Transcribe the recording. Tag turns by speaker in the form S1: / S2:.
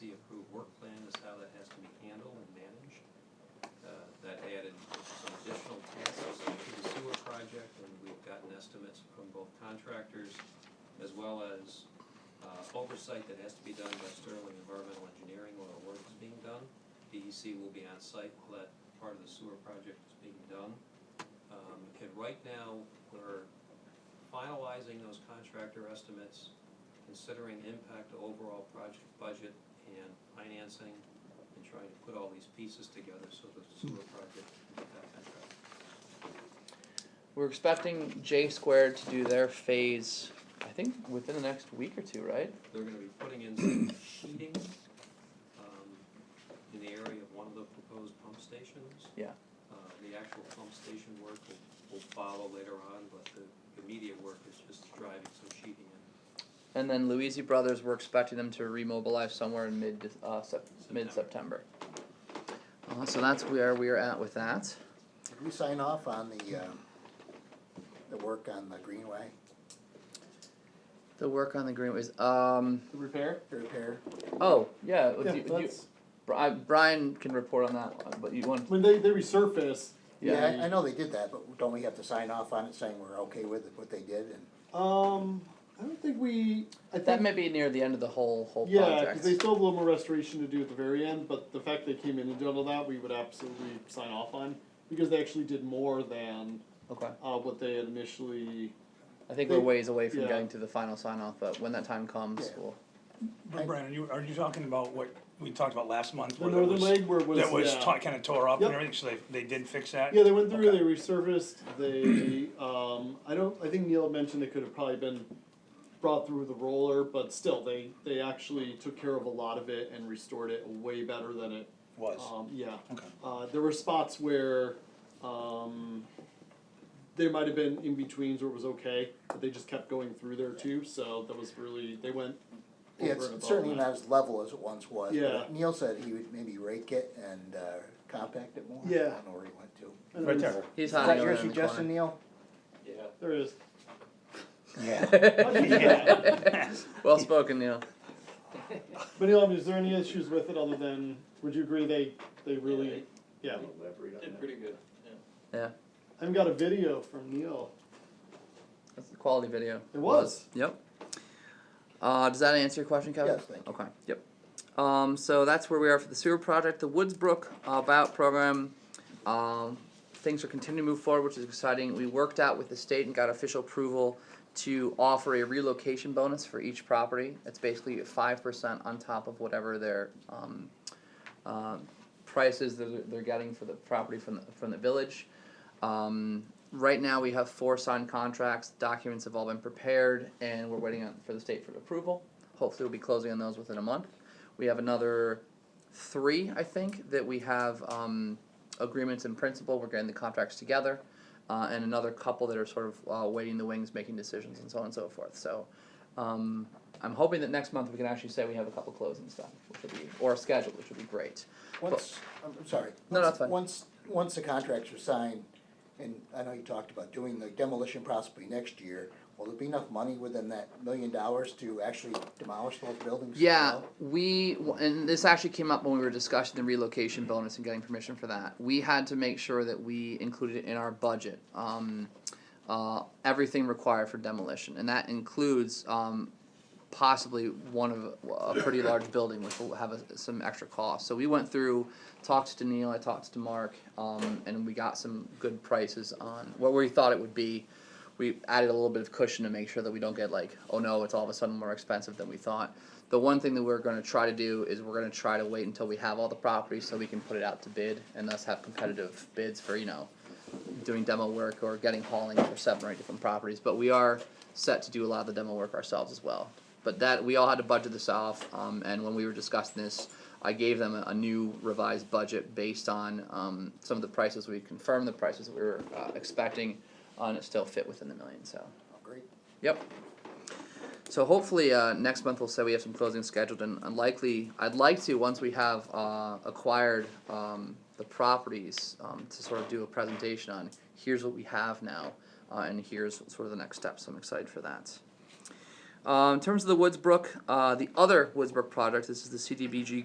S1: Uh, contractors, as well as uh, oversight that has to be done by Sterling Environmental Engineering while the work is being done. DEC will be on site while that part of the sewer project is being done. Um, And right now, we're finalizing those contractor estimates, considering impact to overall project budget and financing, and trying to put all these pieces together so that the sewer project can get that contract.
S2: We're expecting J Squared to do their phase, I think, within the next week or two, right?
S1: They're gonna be putting in some sheeting, um, in the area of one of the proposed pump stations.
S2: Yeah.
S1: Uh, the actual pump station work will, will follow later on, but the immediate work is just driving some sheeting in
S2: And then Luisi Brothers, we're expecting them to remobilize somewhere in mid uh, sep- mid September. Uh, so that's where we are at with that.
S3: Did we sign off on the, um, the work on the greenway,
S2: The work on the green is um
S4: The repair?
S3: the repair?
S2: oh yeah, do
S4: Yeah,
S2: you- do you,
S4: that's,
S2: Bri- Brian can report on that one, but you want
S4: when they, they resurface,
S2: yeah,
S3: I I know they did that, but don't we have to sign off on it saying we're okay with what they did and?
S4: um, I don't think we, I think.
S2: that may be near the end of the whole whole
S4: Yeah,
S2: project.
S4: because they still have a little more restoration to do at the very end, but the fact they came in and did all that, we would absolutely sign off on, because they actually did more than,
S2: okay,
S4: uh, what they had initially.
S2: I think
S4: they-
S2: we're ways away from
S4: yeah.
S2: getting to the final sign off, but when that time comes,
S3: Yeah.
S2: we'll
S3: I-
S5: But Brandon, you, are you talking about what we talked about last month?
S4: The
S5: where
S4: northern
S5: that was-
S4: leg where it was,
S5: That was
S4: yeah.
S5: kind of tore up and
S4: Yep.
S5: everything, so they, they did fix that?
S4: Yeah, they went through,
S5: Okay.
S4: they resurfaced, they, um, I don't, I think Neil had mentioned it could have probably been brought through with a roller, but still, they, they actually took care of a lot of it and restored it way better than it,
S5: Was,
S4: um, yeah.
S5: okay.
S4: Uh, there were spots where um, there might have been in betweens where it was okay, but they just kept going through there too. So that was really they went.
S3: Yeah,
S4: over and above
S3: it's certainly
S4: that.
S3: not as level as it once was. but
S4: Yeah.
S3: Neil said he would maybe rake it and, uh, compact it more. I
S4: Yeah.
S3: don't know where he went to.
S4: And
S5: Right
S4: there's-
S5: there.
S2: he's
S3: Is that
S2: hiding over
S3: your
S2: there in the corner.
S3: suggestion, Neil?
S1: Yeah.
S4: There is.
S3: Yeah.
S4: yeah.
S2: Well spoken, Neil.
S4: But Neil, I mean, is there any issues with it other than would you agree they they really yeah?
S1: Did pretty good.
S2: Yeah,
S4: I've got a video from Neil.
S2: that's a quality video.
S4: It was.
S2: Yep. Uh, does that answer your question, Kevin?
S3: Yes, thank you.
S2: Okay, yep. Um, so that's where we are for the sewer project, the Woodsbrook uh, buyout program. Um, things are continuing to move forward, which is exciting. We worked out with the state and got official approval to offer a relocation bonus for each property. It's basically five percent on top of whatever their um, uh, prices that they're- they're getting for the property from the, from the village. Um, right now, we have four signed contracts. Documents have all been prepared, and we're waiting on, for the state for approval. Hopefully, we'll be closing on those within a month. We have another three, I think, that we have um, agreements in principle. We're getting the contracts together, uh, and another couple that are sort of uh, waiting in the wings, making decisions, and so on and so forth. So. Um, I'm hoping that next month we can actually say we have a couple closings done, which would be or scheduled, which would be great.
S3: Once, I'm I'm sorry.
S2: No,
S3: Once-
S2: that's fine.
S3: Once, once the contracts are signed, and I know you talked about doing the demolition possibly next year, will there be enough money within that million dollars to actually demolish those buildings? as
S2: Yeah,
S3: well?
S2: we and this actually came up when we were discussing the relocation bonus and getting permission for that. We had to make sure that we included it in our budget um, uh, everything required for demolition, and that includes um, possibly one of a pretty large building, which will have a, some extra cost. So we went through, talked to Neil, I talked to Mark, um, and we got some good prices on what we thought it would be. We added a little bit of cushion to make sure that we don't get like, oh no, it's all of a sudden more expensive than we thought. The one thing that we're going to try to do is we're going to try to wait until we have all the properties so we can put it out to bid and thus have competitive bids for you know doing demo work or getting hauling for seven or eight different properties, but we are set to do a lot of the demo work ourselves as well. But that, we all had to budget this off, um, and when we were discussing this, I gave them a, a new revised budget based on, um, some of the prices, we confirmed the prices that we were, uh, expecting, uh, and it still fit within the million, so,
S3: Oh, Great.
S2: yep. So hopefully, uh, next month we'll say we have some closings scheduled and and likely, I'd like to, once we have, uh, acquired, um, the properties, um, to sort of do a presentation on, here's what we have now, uh, and here's sort of the next steps, I'm excited for that. Uh, in terms of the Woodsbrook, uh, the other Woodsbrook project, this is the CDBG